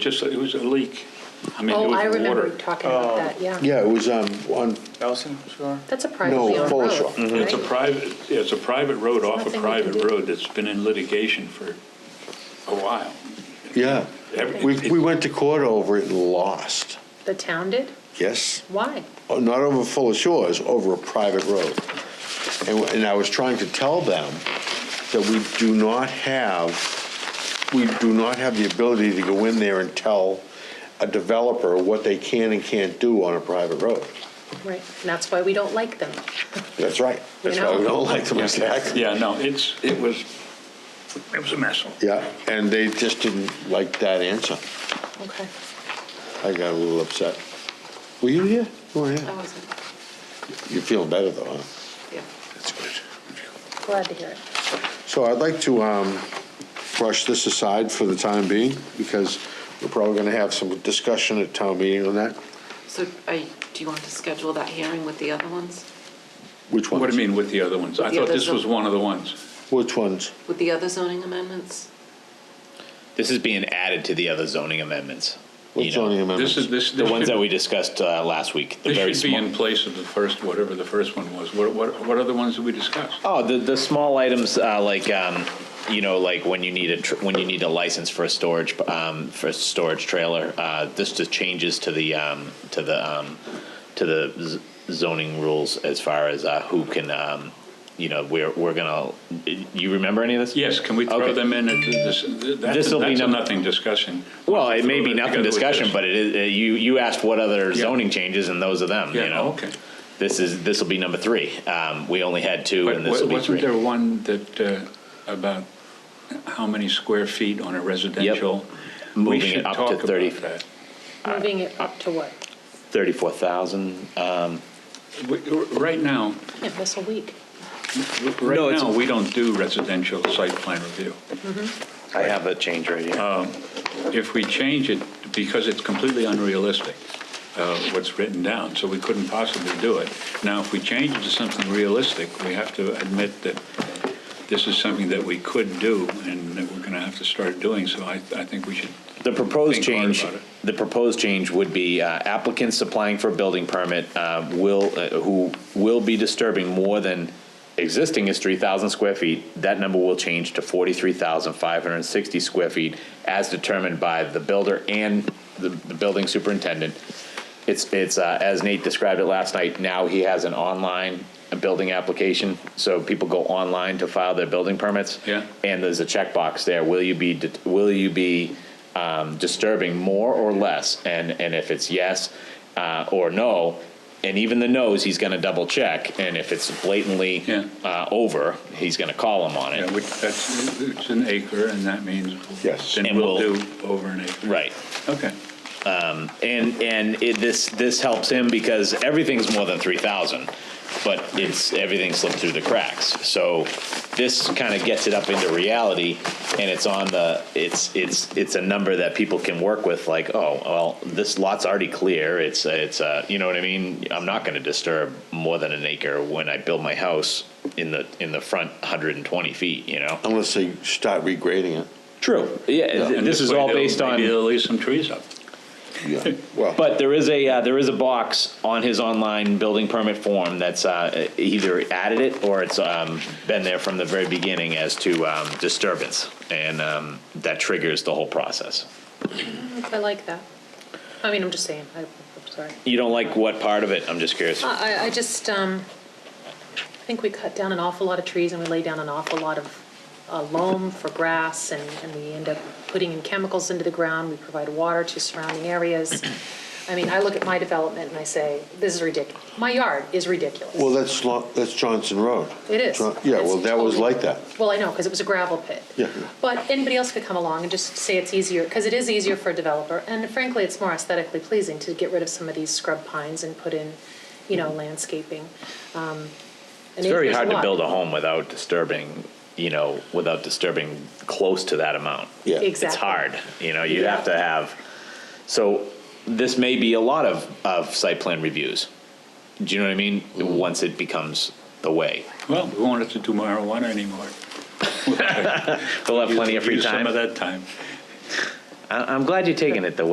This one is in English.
Just, it was a leak. I mean, it Oh, I was remember you water. Uh, talking about that, yeah. Yeah, it was um, on, Ellison Shore? That's a privately No, owned Fuller road. Shop. Mhm. It's a right? private, it's a private road off a nothing we can private do. road that's been in litigation for a while. yeah. Every- We, we went to court over it and lost, The town did? yes? Why? Oh, Not over Fuller Shores, over a private road. And, and I was trying to tell them that we do not have, we do not have the ability to go in there and tell a developer what they can and can't do on a private road. Right, and that's why we don't like them. That's right. That's why we don't like them, exactly. Yeah, no, it's, it was, it was a mess. Yeah, and they just didn't like that answer. Okay, I got a little upset. Were you here? You weren't I here. wasn't, You're feeling better though, huh? yeah, That's good. glad to hear it. So I'd like to um, brush this aside for the time being, because we're probably going to have some discussion at town meeting on that. So are you- do you want to schedule that hearing with the other ones? Which ones? What do you mean with the other ones? I The thought this was others- one of the ones. Which ones? With the other zoning amendments? This is being added to the other zoning amendments. you Which know, zoning amendments? This is, this. The ones that we discussed uh, last week, the very This should be small. in place of the first, whatever the first one was. What, what, what other ones did we discuss? Oh, the, the small items, uh, like, um, you know, like when you need a, tr- when you need a license for a storage, um, for a storage trailer, uh, this just changes to the, um, to the, um, to the z- zoning rules as far as, uh, who can, um, you know, we're, we're gonna, you remember any of this? Yes, can we throw Okay. them in? at This, that's, This'll be that's a num- nothing discussion. Well, it may be nothing Together with discussion, this. but it is, uh, you, you asked what other Yeah. zoning changes and those are them, you Yeah, know? okay. This is, this will be number three. Um, we only had two But and this wa- will be wasn't there three. one that, uh, about how many square feet on a residential? We Moving should it up talk to about 30. that. Moving it up to what? Thirty-four thousand. We- Right now, Can't miss a week. No, right it's- now, we don't do residential site plan review. I have a change right here. If we change it, because it's completely unrealistic, uh, what's written down, so we couldn't possibly do it. Now, if we change it to something realistic, we have to admit that this is something that we could do and that we're going to have to start doing, so I, I think we should The proposed think hard change, about it. the proposed change would be uh, applicants applying for a building permit uh, will, uh, who will be disturbing more than, existing is three thousand square feet. That number will change to forty-three thousand five hundred and sixty square feet as determined by the builder and the, the building superintendent. It's, it's, uh, as Nate described it last night, now he has an online building application. So people go online to file their building permits. Yeah. And there's a checkbox there. Will you be, det- will you be um, disturbing more or less? And, and if it's yes uh, or no, and even the no's, he's going to double check. And if it's blatantly Yeah. uh, over, he's going to call him on Yeah, it. which, that's, it's an acre, and that means. Yes. Then And we'll we'll- do over an acre. Right. Okay. And, and it, this, this helps him because everything's more than 3,000, but it's, everything slipped through the cracks. So this kind of gets it up into reality and it's on the, it's, it's, it's a number that people can work with like, oh, well, this lot's already clear. It's, it's, uh, you know what I mean? I'm not going to disturb more than an acre when I build my house in the, in the front 120 feet, you know? Unless they start regrading it. True. Yeah, And this is way all they'll- based on. Maybe they'll leave some trees up. Yeah, well, But there is a uh, there is a box on his online building permit form that's uh, either added it or it's um, been there from the very beginning as to um, disturbance, and um, that triggers the whole process. I like that. I mean, I'm just saying, I, I'm sorry. You don't like what part of it? I'm just curious. I, I- I just, um, I think we cut down an awful lot of trees and we lay down an awful lot of uh, loam for grass and, and we end up putting in chemicals into the ground. We provide water to surrounding areas. I mean, I look at my development and I say, this is ridiculous. My yard is ridiculous. well, that's, lo- that's Johnson Road. It is. John- Yeah, well, It's that was totally- like that. Well, I know, because it was a gravel pit. Yeah. But anybody else could come along and just say it's easier, because it is easier for a developer, and frankly, it's more aesthetically pleasing to get rid of some of these scrub pines and put in, you know, landscaping. Um, It's very hard to build a home without disturbing, you know, without disturbing close to that amount. Yeah. It's Exactly. hard, you know, you Yeah. have to have, so this may be a lot of, of site plan reviews. Do you know what I mean? Once it becomes the way. Well, we won't have to do marijuana anymore. They'll have plenty of free Use some of time. that time. I, I'm glad you're taking it the way